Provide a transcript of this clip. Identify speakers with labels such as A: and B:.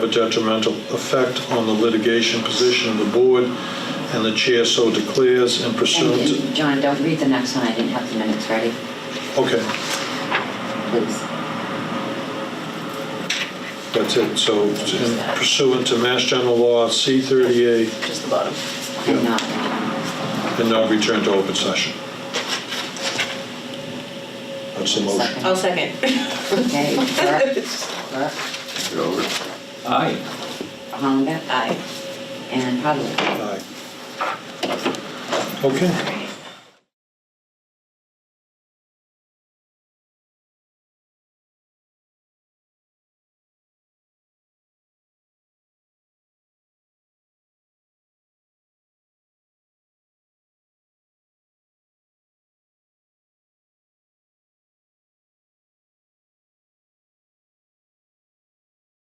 A: a detrimental effect on the litigation position of the board, and the chair so declares and pursuant to...
B: And John, don't read the next one, I didn't have the minutes ready,
A: Okay,
B: please.
A: that's it. So it's in pursuant to Mass General Law C-38,
C: just the bottom.
B: I'm not,
A: and now return to open session. That's the motion.
B: Second.
C: I'll second.
B: okay, Burke, Burke,
D: Aye.
B: Hollenbeck,
C: Aye.
B: and Hudley.
A: Aye. Okay.
C: All right.